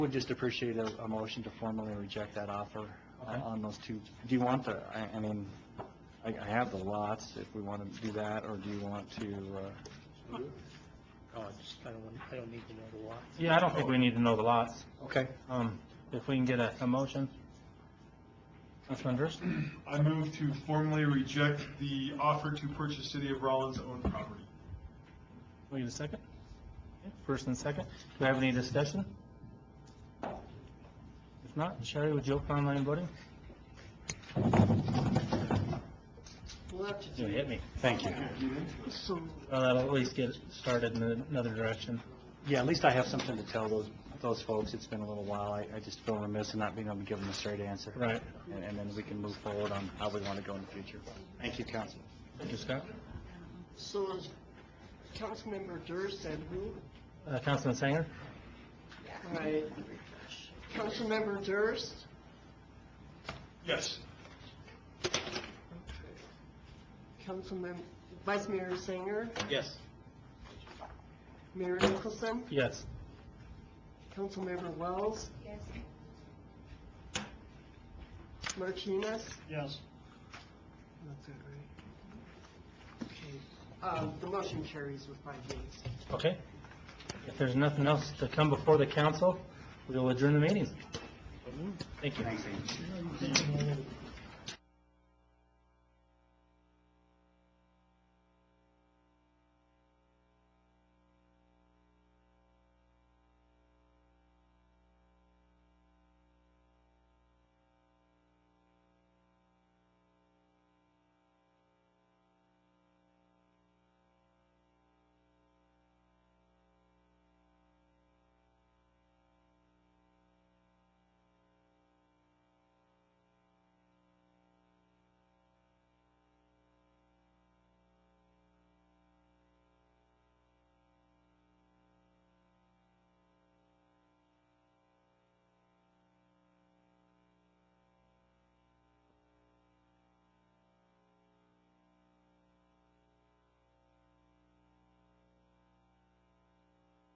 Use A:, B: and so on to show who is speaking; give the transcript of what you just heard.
A: Would just appreciate a, a motion to formally reject that offer uh,
B: Okay.
A: on those two. Do you want the, I, I mean, I, I have the lots, if we want to do that, or do you want to, uh,
C: Oh, I just, I don't, want- I don't need to know the lot.
B: Yeah, I don't think we need to know the lots.
A: okay,
B: Um, if we can get a, a motion. Councilman Durst?
D: I move to formally reject the offer to purchase City of Rollins' own property.
B: Will you get a second? Okay, First and second. Do we have any discussion? If not, Sherry, would you open online voting?
C: We'll have to
B: You
C: do,
B: hit me. Thank you.
C: so,
B: Well, that'll at least get it started in another direction.
A: yeah, at least I have something to tell those, those folks, it's been a little while, I, I just feel remiss in not being able to give them a straight answer.
B: Right.
A: And, and then we can move forward on how we want to go in the future. Thank you, council.
B: Thank you, Scott.
C: so is Councilmember Durst and who?
B: Uh, Councilman Sanger?
C: All right. Councilmember Durst,
D: Yes.
C: Councilmember, Vice Mayor Singer,
B: Yes.
C: Mayor Nicholson,
B: Yes.
C: Councilmember Wells,
E: Yes.
C: Martinez.
D: Yes.
C: That's it, right? Okay, um, the motion carries with five yeas.
B: Okay. If there's nothing else to come before the council, we will adjourn the meeting. Thank you.